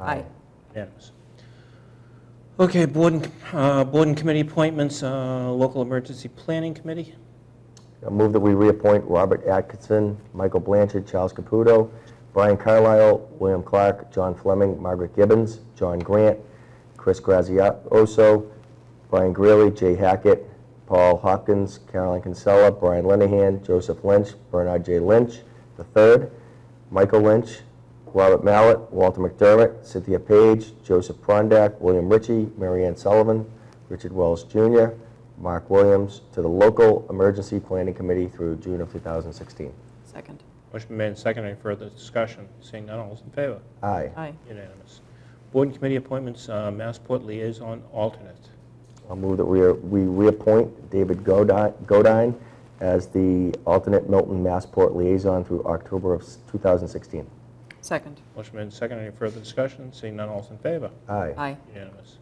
Aye. Unanimous. Okay, board and, uh, board and committee appointments, uh, local emergency planning committee. I move that we reappoint Robert Atkinson, Michael Blanchard, Charles Caputo, Brian Carlisle, William Clark, John Fleming, Margaret Gibbons, John Grant, Chris Grazioso, Brian Greeley, Jay Hackett, Paul Hopkins, Carolyn Kinsella, Brian Linehan, Joseph Lynch, Bernard J. Lynch III, Michael Lynch, Robert Mallett, Walter McDermott, Cynthia Page, Joseph Prondak, William Ritchie, Marianne Sullivan, Richard Wells Jr., Mark Williams, to the local emergency planning committee through June of 2016. Second. Motion been made and seconded. Any further discussion? Seeing none, all those in favor? Aye. Aye. Unanimous. Board and committee appointments, uh, Massport liaison alternate. I'll move that we are- we reappoint David Godi- Godine as the alternate Milton Massport liaison through October of s- 2016. Second. Motion made and seconded. Any further discussion? Seeing none, all those in favor? Aye. Aye. Unanimous.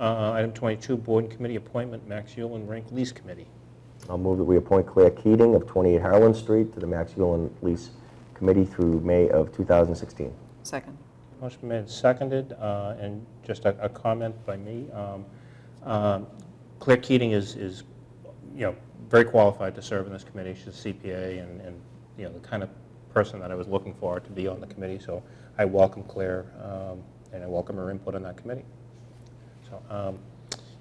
Uh, Item 22, board and committee appointment, Max Yulin Rink Lease Committee. I'll move that we appoint Claire Keating of 28 Harlan Street to the Max Ullin Lease Committee through May of 2016. Second. Motion made, and seconded, uh, and just a a comment by me. um, um, Claire Keating is, is, you know, very qualified to serve in this committee. She's a CPA and, and, you know, the kind of person that I was looking for to be on the committee, so I welcome Claire, um, and I welcome her input on that committee. So, um,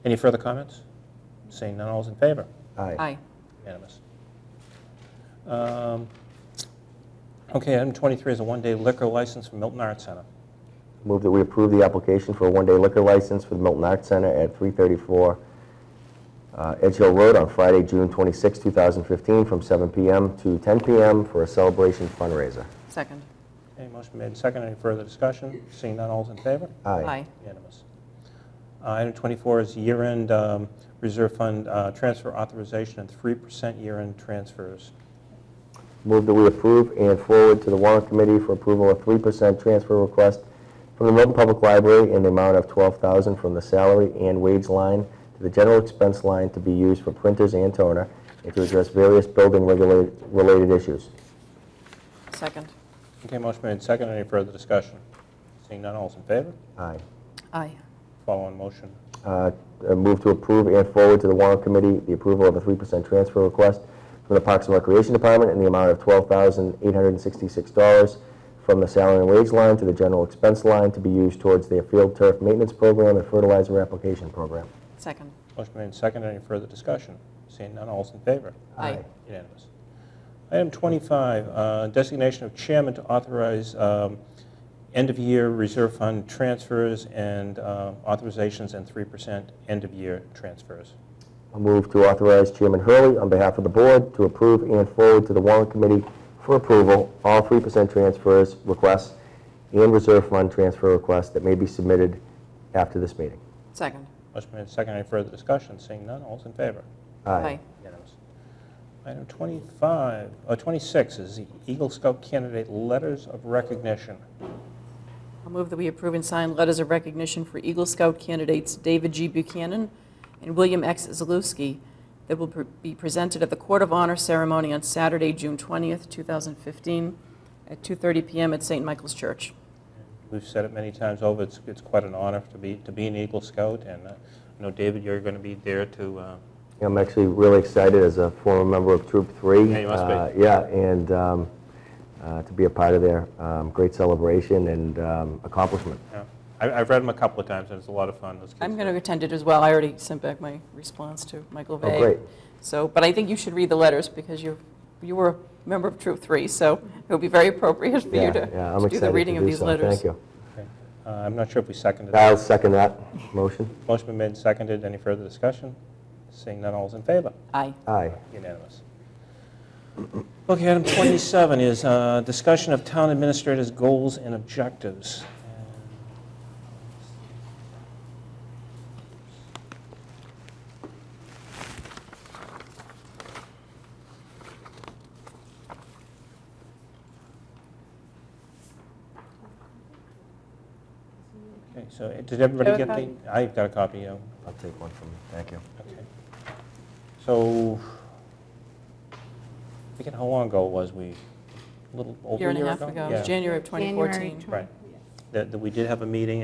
any further comments? Seeing none, all's in favor? Aye. Unanimous. Um, Okay, item 23 is a one-day liquor license for Milton Arts Center. Move that we approve the application for a one-day liquor license for the Milton Arts Center at 334 uh, Edge Hill Road on Friday, June 26, 2015, from 7 p.m. to 10 p.m. for a celebration fundraiser. Second. Okay, motion made and seconded. Any further discussion? Seeing none, all's in favor? Aye. Unanimous. Uh, Item 24 is year-end um, reserve fund uh, transfer authorization and 3% year-end transfers. Move that we approve and forward to the warrant committee for approval of 3% transfer request from the Milton Public Library in the amount of 12000 from the salary and wage line to the general expense line to be used for printers and toner and to address various building-related issues. Second. Okay, motion made and seconded. Any further discussion? Seeing none, all's in favor? Aye. Aye. Following motion. Uh, uh, Move to approve and forward to the warrant committee the approval of a 3% transfer request from the Parks and Recreation Department in the amount of $12,866 from the salary and wage line to the general expense line to be used towards their field turf maintenance program and fertilizer application program. Second. Motion made and seconded. Any further discussion? Seeing none, all's in favor? Aye. Unanimous. Item 25, uh, designation of chairman to authorize um, end-of-year reserve fund transfers and uh, authorizations and 3% end-of-year transfers. I move to authorize Chairman Hurley, on behalf of the board, to approve and forward to the warrant committee for approval all 3% transfers requests and reserve fund transfer requests that may be submitted after this meeting. Second. Motion made and seconded. Any further discussion? Seeing none, all's in favor? Unanimous. Item 25, uh, 26 is the Eagle Scout candidate letters of recognition. I'll move that we approve and sign letters of recognition for Eagle Scout candidates David G. Buchanan and William X. Zalewski that will pre- be presented at the Court of Honor ceremony on Saturday, June 20th, 2015, at 2:30 PM at St. Michael's Church. We've said it many times over, it's, it's quite an honor to be, to be an Eagle Scout, and uh, I know, David, you're going to be there to uh, I'm actually really excited as a former member of Troop 3. Yeah, you must be. Uh, Yeah, and um, uh, to be a part of their um, great celebration and um, accomplishment. Yeah, I- I've read them a couple of times, and it's a lot of fun. Those kids I'm are- going to attend it as well. I already sent back my response to Michael Vay. Oh, great. So, but I think you should read the letters because you, you were a member of Troop 3, so it would be very appropriate for Yeah, you to yeah, I'm to do excited the to reading of do these so. letters. Thank you. Okay. Uh, I'm not sure if we seconded it. I'll second that motion. Motion been made and seconded. Any further discussion? Seeing none, all's in favor? Aye. Aye. Unanimous. Okay, item 27 is uh, discussion of town administrators' goals and objectives. Okay, so uh, did everybody have a get the? I've got a copy, yeah. I'll take one from you. Thank you. Okay. So, thinking how long ago was we? A little over Year a and a year half ago? ago, it Yeah. was January of 2014. Right. that that we did have a meeting